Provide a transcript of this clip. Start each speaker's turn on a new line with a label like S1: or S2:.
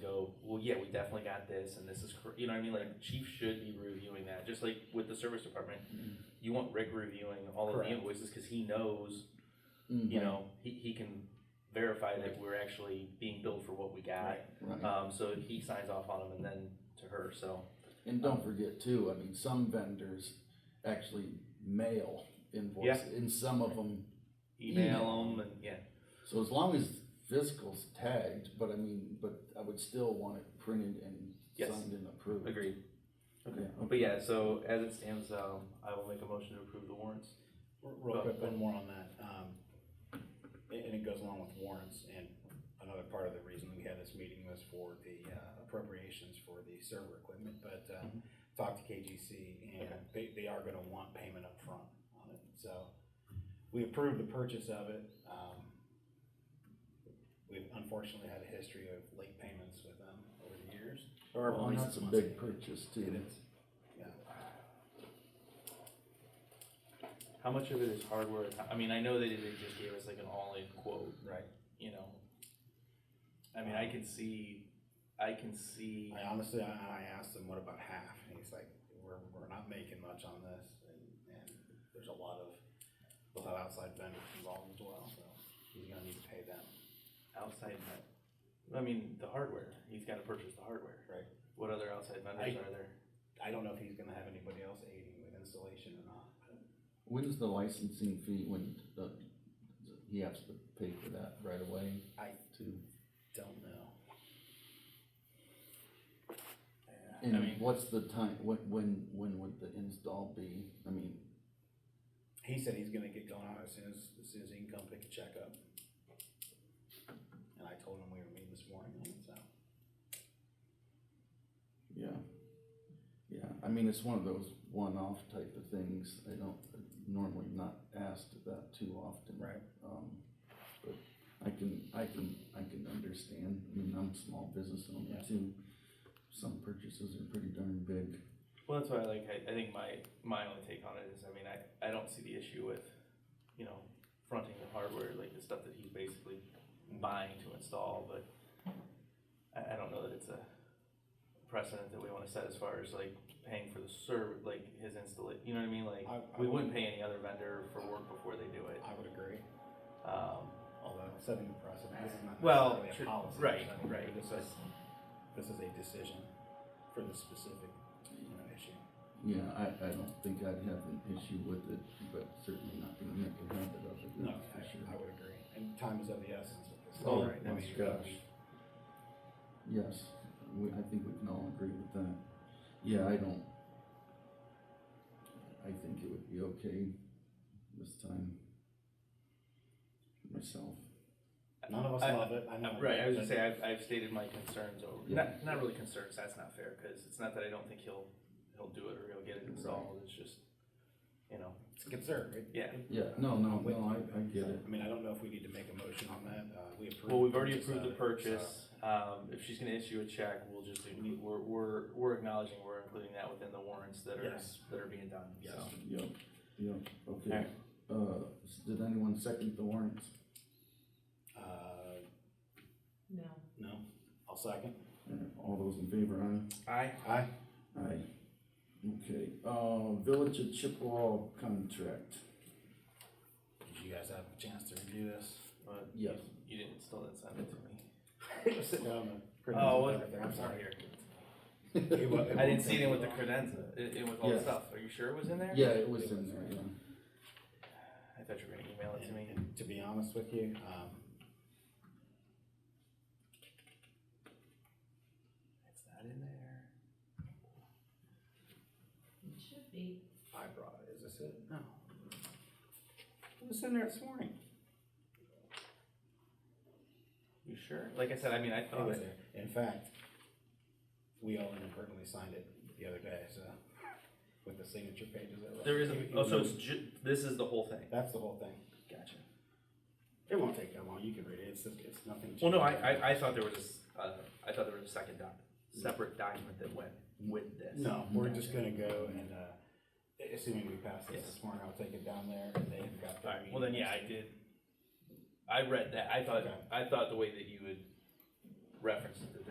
S1: go, well, yeah, we definitely got this, and this is, cor-" you know what I mean? Like, chief should be reviewing that, just like with the service department. You want Rick reviewing all of the
S2: Correct.
S1: invoices, cause he knows,
S3: Mm-hmm.
S1: you know, he, he can verify that we're actually being billed for what we got.
S3: Right.
S1: Um, so he signs off on them and then to her, so,
S3: And don't forget too, I mean, some vendors actually mail invoices, and some of them,
S1: email them and, yeah.
S3: so as long as physical's tagged, but I mean, but I would still want it printed and
S1: Yes.
S3: signed and approved.
S1: Agreed. Okay,
S3: Yeah.
S1: but yeah, so as it stands, um, I will make a motion to approve the warrants.
S2: R- Real quick, one more on that, um, and, and it goes along with warrants, and another part of the reason we had this meeting was for the uh, appropriations for the server equipment, but, uh,
S1: Mhm.
S2: talked to KGC, and
S1: Okay.
S2: they, they are gonna want payment up front on it, so we approved the purchase of it, um, we've unforately had a history of late payments with them over the years, or at
S3: Well,
S2: least
S3: that's a
S2: once
S3: big purchase
S2: It
S3: too.
S2: is, yeah,
S1: How much of it is hardware? I mean, I know that they just gave us like an all-in quote,
S2: right,
S1: you know? I mean, I can see, I can see,
S2: I honestly, I, I asked him, what about half? And he's like, we're, we're not making much on this, and, and there's a lot of, we'll have outside vendors involved as well, so he's gonna need to pay them.
S1: outside that. I mean, the hardware, he's gotta purchase the hardware.
S2: Right.
S1: What other outside vendors are there?
S2: I don't know if he's gonna have anybody else aiding with installation or not, but
S3: When's the licensing fee, when the, he has to pay for that right away
S2: I
S3: too?
S2: don't know. Yeah.
S1: I mean-
S3: And what's the time, when, when, when would the install be? I mean,
S2: He said he's gonna get going on as soon as, as soon as he can come pick a check up. And I told him we were meeting this morning, so,
S3: Yeah. Yeah, I mean, it's one of those one-off type of things. I don't, normally not asked about too often.
S2: right,
S3: Um, but I can, I can, I can understand. I mean, I'm a small business owner
S2: Yeah.
S3: too. Some purchases are pretty darn big.
S1: Well, that's why, like, I, I think my, my only take on it is, I mean, I, I don't see the issue with, you know, fronting the hardware, like the stuff that he's basically buying to install, but I, I don't know that it's a precedent that we wanna set as far as like paying for the serv, like his installation, you know what I mean, like,
S2: I- I
S1: we wouldn't pay any other vendor for work before they do it,
S2: I would agree.
S1: um,
S2: although setting the precedent, this is not
S1: Well,
S2: necessarily
S1: true,
S2: a policy.
S1: right,
S2: I mean,
S1: right.
S2: This is, this is a decision for the specific, you know, issue.
S3: Yeah, I, I don't think I'd have an issue with it, but certainly not gonna make a habit of it, that's
S2: I,
S3: for sure.
S2: I would agree, and time is of the essence with this.
S3: Oh,
S2: right? I
S3: my
S2: mean,
S3: gosh. Yes, we, I think we can all agree with that. Yeah, I don't. I think it would be okay this time. Myself.
S2: None of us
S1: I-
S2: love it, I know.
S1: Uh, Right, I was gonna
S2: but-
S1: say, I've, I've stated my concerns over,
S3: Yeah.
S1: not, not really concerns, that's not fair, cause it's not that I don't think he'll, he'll do it or he'll get it installed, it's just, you know,
S2: It's a concern, right?
S1: Yeah.
S3: Yeah, no, no,
S2: I'm with
S3: no,
S2: you.
S3: I, I get it.
S2: I mean, I don't know if we need to make a motion on that, uh, we approved.
S1: Well, we've
S2: the
S1: already
S2: purchase
S1: approved the
S2: of it, so-
S1: purchase, um, if she's gonna issue a check, we'll just, we're, we're, we're acknowledging, we're including that within the warrants that are,
S2: Yes.
S1: that are being done,
S2: Yes.
S1: so.
S3: Yep, yep, okay.
S1: Alright.
S3: Uh, s- did anyone second the warrants?
S2: Uh,
S4: No.
S2: no, I'll second.
S3: Uh, All those in favor, aye?
S1: I,
S2: Aye.
S3: Aye. Okay, uh, Village of Chippewa contract.
S2: Did you guys have a chance to review this?
S1: but
S3: Yes.
S1: you didn't, still didn't send it to me.
S2: Sit down and.
S1: Oh,
S2: Everything,
S1: what,
S2: I'm
S1: I'm sorry.
S2: It wa- it
S1: I didn't
S2: won't
S1: see it
S2: take
S1: in with the
S2: long.
S1: credenza, in, in with all the
S3: Yes.
S1: stuff, are you sure it was in there?
S3: Yeah, it was in there, yeah.
S1: I thought you were gonna email it to
S2: And-
S1: me.
S2: and To be honest with you, um,
S1: It's not in there.
S4: It should be.
S2: I brought it, is this it? No. It Oh. was in there this morning.
S1: You sure? Like I said, I mean, I
S2: It
S1: thought,
S2: was there. In fact, we all inadvertently signed it the other day, so, with the signature pages. that were-
S1: there is, a-
S2: Even-
S1: oh, so
S2: even-
S1: it's ju- this is the whole thing?
S2: That's the whole thing.
S1: Gotcha.
S2: It won't take that long, you can read it, it's, it's nothing.
S1: Well, no, I,
S2: changed.
S1: I, I thought there was, a s- uh, I thought there was a second doc, separate document that went with this.
S2: No, we're just gonna go and, uh, assuming we pass this
S1: Yes.
S2: this morning, I'll take it down there, and they've got. their
S1: Alright, well then,
S2: meeting
S1: yeah, I
S2: next
S1: did, I read that, I thought,
S2: Okay.
S1: I thought the way that you would reference it, that